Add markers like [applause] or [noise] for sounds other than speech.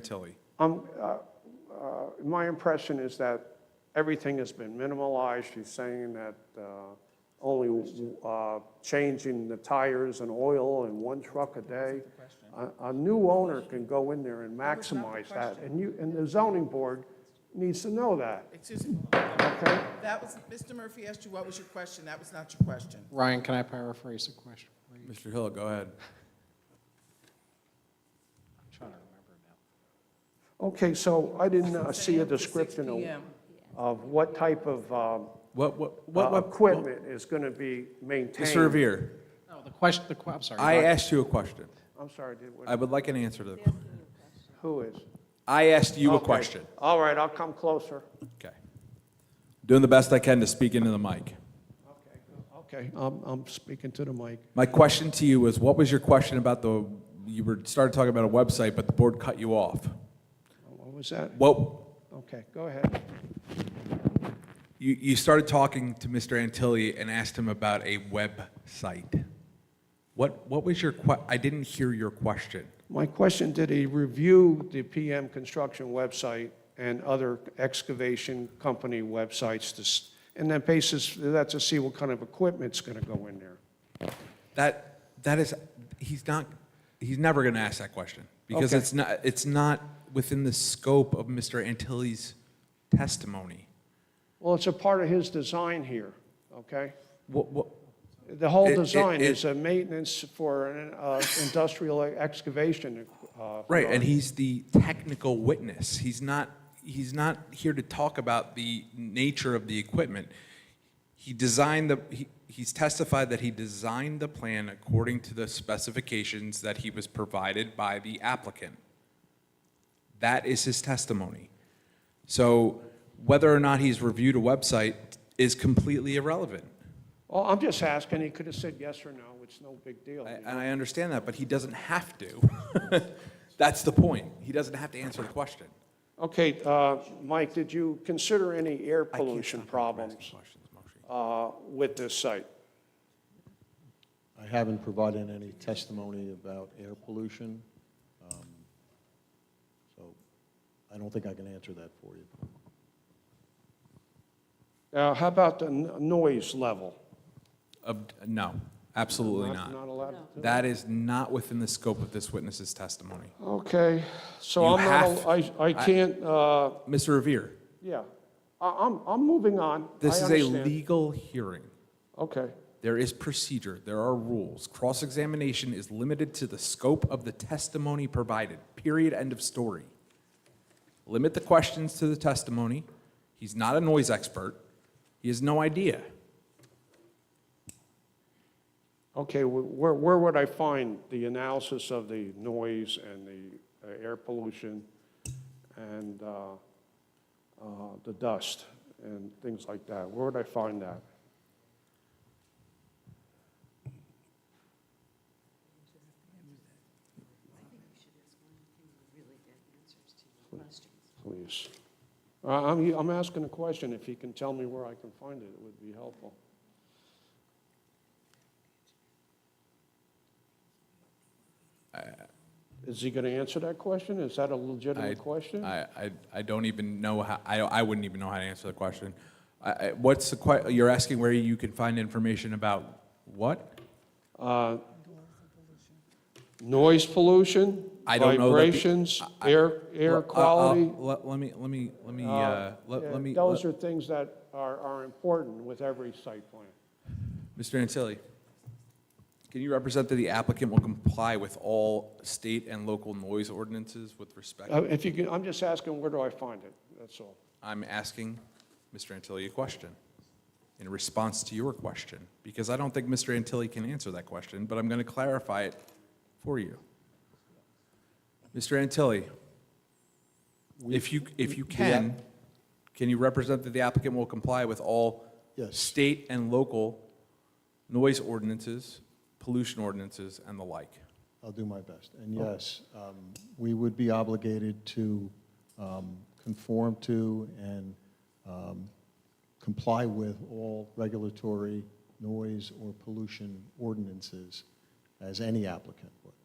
Tilly. Um, uh, uh, My impression is that everything has been minimalized. You're saying that uh, only uh, changing the tires and oil in one truck a day. A- A new owner can go in there and maximize that, and you, and the zoning board needs to know that, Excuse me, okay? that was, Mr. Murphy asked you what was your question, that was not your question. Ryan, can I paraphrase the question? for you? Mr. Hill, go ahead. I'm trying to remember now. Okay, so I didn't uh, see a Saying to 6 description of- PM. of what type of um, What, what, what? uh, what- equipment is going to be maintained. Mr. Revere, No, the question, the, que- I'm sorry. I Ryan. asked you a question. I'm sorry, did- I would like an answer to the question. who is? I asked you a Okay. question. All right, I'll come closer. Okay. Doing the best I can to speak into the mic. Okay, I'm, I'm speaking to the mic. My question to you is, what was your question about the, you were, started talking about a website, but the board cut you off. What was that? What, Okay, go ahead. you, you started talking to Mr. Antilli and asked him about a website. What, what was your que, I didn't hear your question. My question, did he review the PM Construction website and other excavation company websites to, s- and then basis, that to see what kind of equipment's going to go in there? That that is he's not he's never going to ask that question because Okay. it's not it's not within the scope of Mr. Antilli's testimony. Well, it's a part of his design here, okay? What, what The whole It- it- design is it- a maintenance for an uh, industrial excavation. uh, right, yard. and he's the technical witness. He's not he's not here to talk about the nature of the equipment. He designed the he, he's testified that he designed the plan according to the specifications that he was provided by the applicant. That is his testimony. So whether or not he's reviewed a website is completely irrelevant. Well, Oh, I'm just asking, he could have said yes or no, it's no big deal. I- And I understand that, but he doesn't have to. [laughs] That's the point. He doesn't have to answer the question. Okay, uh, Mike, did you consider any air pollution problems uh, with this site? I haven't provided any testimony about air pollution, um, so I don't think I can answer that for you. Now, how about the n- noise level? Ob- No, absolutely Not not. allowed? to- That is not within the scope of this witness's testimony. Okay, so You I'm not, have- al- I I can't, uh, Mr. Revere, yeah, I- I'm, I'm moving on. this I is a understand. legal hearing. Okay, There is procedure, there are rules. Cross-examination is limited to the scope of the testimony provided, period, end of story. Limit the questions to the testimony. He's not a noise expert. He has no idea. okay, wh- where, where would I find the analysis of the noise and the uh, air pollution and uh, uh, the dust and things like that? Where would I find that? Please. I- I'm, I'm asking a question. If you can tell me where I can find it, it would be helpful. Is he going to answer that question? Is that a I- legitimate question? I, I, I don't even know how, I, I wouldn't even know how to answer the question. I, I, what's the que, you're asking where you can find information about what? Uh, Noise pollution? I don't know that the- Vibrations, air, Well, air I'll- quality? I'll- Let, let me, let me, let me, uh, uh, let, let me. Those are things that are, are important with every site plan. Mr. Antilli, can you represent that the applicant will comply with all state and local noise ordinances with respect? Uh, If you can, I'm just asking, where do I find it? That's all. I'm asking Mr. Antilli a question in response to your question, because I don't think Mr. Antilli can answer that question, but I'm going to clarify it for you. Mr. Antilli, if you, if you the app- can, can you represent that the applicant will comply with all Yes. state and local noise ordinances, pollution ordinances, and the like? I'll do my best. And yes, um, we would be obligated to um, conform to and um, comply with all regulatory noise or pollution ordinances as any applicant would.